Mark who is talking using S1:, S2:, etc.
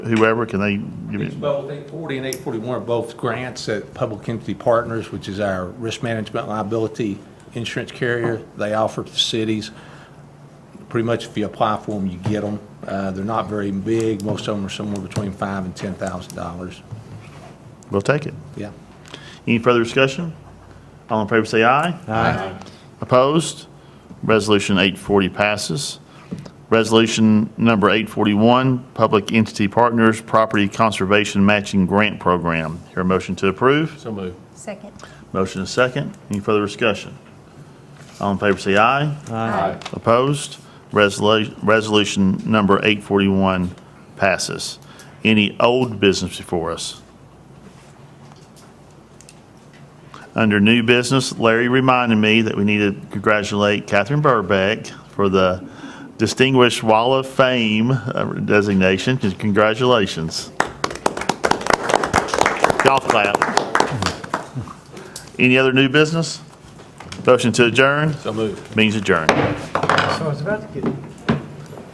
S1: whoever, can they give
S2: These
S1: you?
S2: both, 840 and 841 are both grants at Public Entity Partners, which is our risk management liability insurance carrier. They offer to cities. Pretty much if you apply for them, you get them. Uh, They're not very big. Most of them are somewhere between five and $10,000.
S1: We'll take it.
S2: Yeah.
S1: Any further discussion? All in favor say aye.
S2: Aye.
S1: Opposed? Resolution 840 passes. Resolution number 841, Public Entity Partners Property Conservation Matching Grant Program. Hear a motion to approve?
S2: So moved.
S3: Second.
S1: Motion is second. Any further discussion? All in favor say aye.
S3: Aye.
S1: Opposed? Resolu- Resolution number 841 passes. Any old business before us? Under new business, Larry reminded me that we need to congratulate Catherine Burbeck for the Distinguished Wall of Fame uh, designation. Congratulations. Golf clap. Any other new business? Motion to adjourn?
S2: So moved.
S1: Means adjourned.
S4: So I was about to get